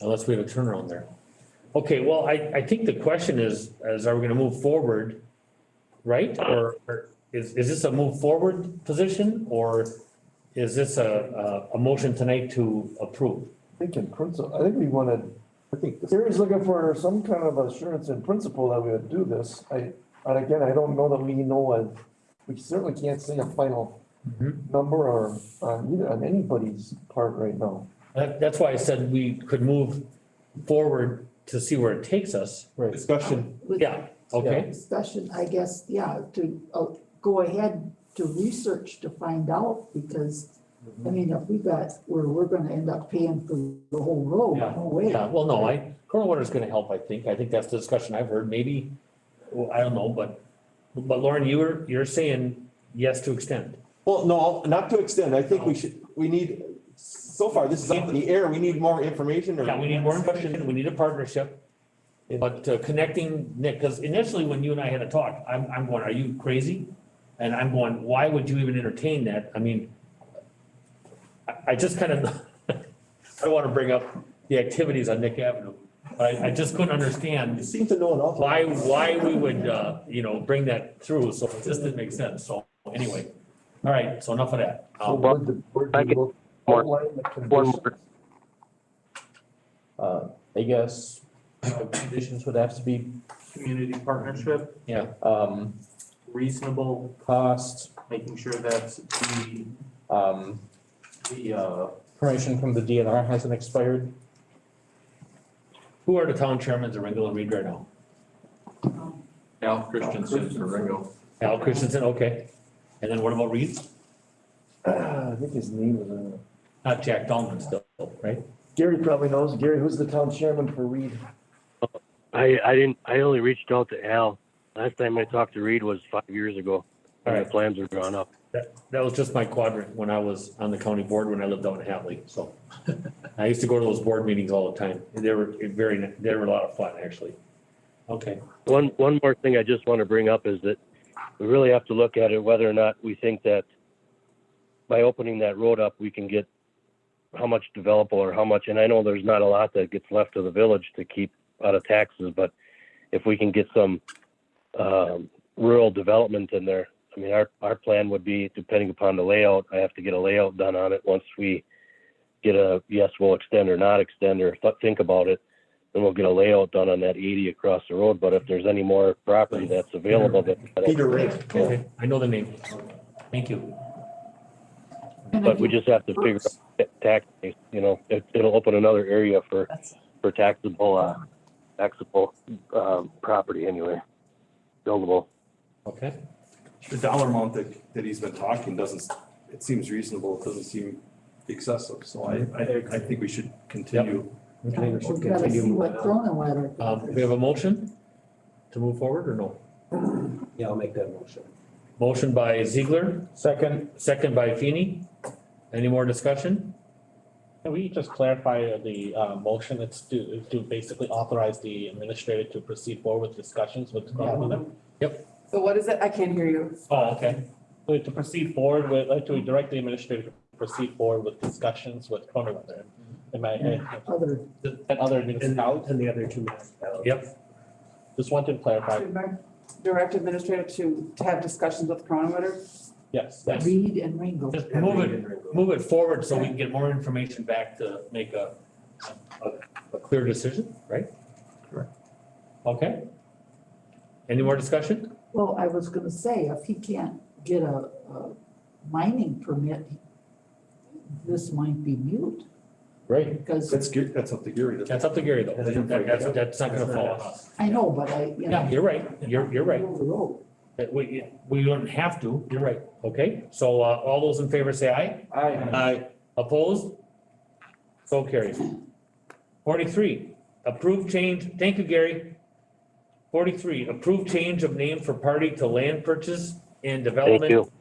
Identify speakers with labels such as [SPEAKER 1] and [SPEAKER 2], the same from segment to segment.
[SPEAKER 1] Unless we have a turnaround there. Okay, well, I, I think the question is, is are we gonna move forward? Right? Or or is, is this a move forward position or is this a, a, a motion tonight to approve?
[SPEAKER 2] I think in principle, I think we wanted, I think Terry's looking for some kind of assurance in principle that we would do this. I, and again, I don't know that we know and we certainly can't say a final
[SPEAKER 3] Mm-hmm.
[SPEAKER 1] Mhm.
[SPEAKER 2] number or on either, on anybody's part right now.
[SPEAKER 1] That, that's why I said we could move forward to see where it takes us.
[SPEAKER 2] Right.
[SPEAKER 3] Discussion,
[SPEAKER 4] with
[SPEAKER 1] Yeah, okay,
[SPEAKER 4] Discussion, I guess, yeah, to uh, go ahead to research to find out because,
[SPEAKER 1] Mm-hmm.
[SPEAKER 4] I mean, if we got, where we're gonna end up paying for the whole road,
[SPEAKER 1] Yeah.
[SPEAKER 4] no way.
[SPEAKER 1] yeah, well, no, I, current water's gonna help, I think. I think that's the discussion I've heard, maybe, well, I don't know, but, but Lauren, you were, you're saying yes to extend.
[SPEAKER 3] well, no, not to extend, I think we should, we need, so far, this is up in the air, we need more information or.
[SPEAKER 1] Yeah, we need more information, we need a partnership. But uh, connecting, Nick, because initially when you and I had a talk, I'm, I'm going, are you crazy? And I'm going, why would you even entertain that? I mean, I, I just kind of, I don't want to bring up the activities on Nick Avenue, but I, I just couldn't
[SPEAKER 3] You
[SPEAKER 1] understand
[SPEAKER 3] seem to know an awful.
[SPEAKER 1] why, why we would, uh, you know, bring that through, so it just didn't make sense, so anyway. All right, so enough of that.
[SPEAKER 2] So
[SPEAKER 1] Um,
[SPEAKER 2] would the board
[SPEAKER 5] Uh, I
[SPEAKER 2] be
[SPEAKER 5] get-
[SPEAKER 2] able to
[SPEAKER 5] more-
[SPEAKER 2] outline the
[SPEAKER 5] One
[SPEAKER 2] conditions?
[SPEAKER 5] more.
[SPEAKER 6] Uh, I guess uh, conditions would have to be,
[SPEAKER 7] community partnership,
[SPEAKER 6] um,
[SPEAKER 7] reasonable,
[SPEAKER 6] cost,
[SPEAKER 7] making sure that the,
[SPEAKER 6] um,
[SPEAKER 7] the, uh,
[SPEAKER 6] permission from the DNR hasn't expired.
[SPEAKER 1] Who are the town chairmen of Ringo and Reed right now?
[SPEAKER 8] Al Christensen for Ringo.
[SPEAKER 1] Al Christensen, okay. And then what about Reed?
[SPEAKER 2] Ah, I think his name is, uh,
[SPEAKER 1] Not Jack Donlin still, right?
[SPEAKER 2] Gary probably knows. Gary, who's the town chairman for Reed?
[SPEAKER 5] I, I didn't, I only reached out to Al. Last time I talked to Reed was five years
[SPEAKER 1] All
[SPEAKER 5] ago. And the
[SPEAKER 1] right,
[SPEAKER 5] plans are drawn up.
[SPEAKER 1] that was just my quadrant when I was on the county board when I lived out in Hatley, so. I used to go to those board meetings all the time. They were very, they were a lot of fun, actually. Okay,
[SPEAKER 5] One, one more thing I just want to bring up is that we really have to look at it whether or not we think that by opening that road up, we can get how much developable or how much, and I know there's not a lot that gets left to the village to keep out of taxes, but if we can get some, um, rural development in there, I mean, our, our plan would be, depending upon the layout, I have to get a layout done on it once we get a, yes, we'll extend or not extend or th- think about it then we'll get a layout done on that eighty across the road, but if there's any more property that's available that.
[SPEAKER 3] Peter Ray.
[SPEAKER 1] okay, I know the name. Thank you.
[SPEAKER 4] And I
[SPEAKER 5] But we
[SPEAKER 4] think
[SPEAKER 5] just have to figure
[SPEAKER 4] works.
[SPEAKER 5] out tax, you know, it, it'll open another area for,
[SPEAKER 4] That's-
[SPEAKER 5] for taxable, uh, taxable, um, property anyway. Buildable.
[SPEAKER 1] Okay,
[SPEAKER 3] The dollar amount that, that he's been talking doesn't, it seems reasonable, it doesn't seem excessive, so I, I, I think we should continue.
[SPEAKER 4] We've gotta see what Cronin
[SPEAKER 1] um, we have a motion to move forward or no?
[SPEAKER 6] Yeah, I'll make that motion.
[SPEAKER 1] Motion by Ziegler,
[SPEAKER 6] Second,
[SPEAKER 1] second by Feeny. Any more discussion?
[SPEAKER 9] Can we just clarify the uh, motion? It's to, to basically authorize the administrator to proceed forward with discussions with Cronin.
[SPEAKER 10] So what is it? I can't hear you.
[SPEAKER 1] Oh, okay.
[SPEAKER 9] Like, Uh, To proceed forward with, like to direct the administrator to proceed forward with discussions with Cronin. Am I, and
[SPEAKER 4] other,
[SPEAKER 9] other municipalities?
[SPEAKER 6] and the other two minutes.
[SPEAKER 1] Yep,
[SPEAKER 9] Just want to clarify,
[SPEAKER 10] Direct administrator to, to have discussions with Cronin.
[SPEAKER 9] yes.
[SPEAKER 1] Yes.
[SPEAKER 4] Reed and Ringo.
[SPEAKER 1] just move it, move it forward so we can get more information back to make a, a, a clear decision, right?
[SPEAKER 3] Correct.
[SPEAKER 1] Okay. Any more discussion?
[SPEAKER 4] Well, I was gonna say, if he can't get a, a mining permit, this might be mute
[SPEAKER 6] Right.
[SPEAKER 4] because
[SPEAKER 3] That's, Ge- that's up to Gary. that's-
[SPEAKER 1] That's up to Gary though. That- That's, that's not gonna fall on us.
[SPEAKER 4] I know, but I, you
[SPEAKER 1] Yeah,
[SPEAKER 4] know.
[SPEAKER 1] you're right. You're, you're right.
[SPEAKER 4] the road.
[SPEAKER 1] That We, we don't have to. You're right. Okay, so, uh, all those in favor say aye.
[SPEAKER 3] I,
[SPEAKER 1] Opposed? So carried. Forty-three, approved change, thank you, Gary. Forty-three, approved change of name for party to land purchase and
[SPEAKER 5] Thank
[SPEAKER 1] development,
[SPEAKER 5] you.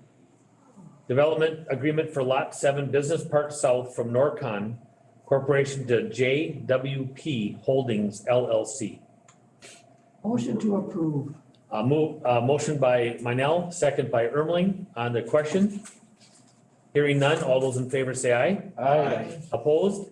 [SPEAKER 1] development agreement for lot seven, Business Park South from Norcon Corporation to JWP Holdings LLC.
[SPEAKER 4] Motion to approve.
[SPEAKER 1] Uh, move, uh, motion by Minell, second by Ermling on the question. Hearing none, all those in favor say aye.
[SPEAKER 6] Aye.
[SPEAKER 1] Opposed?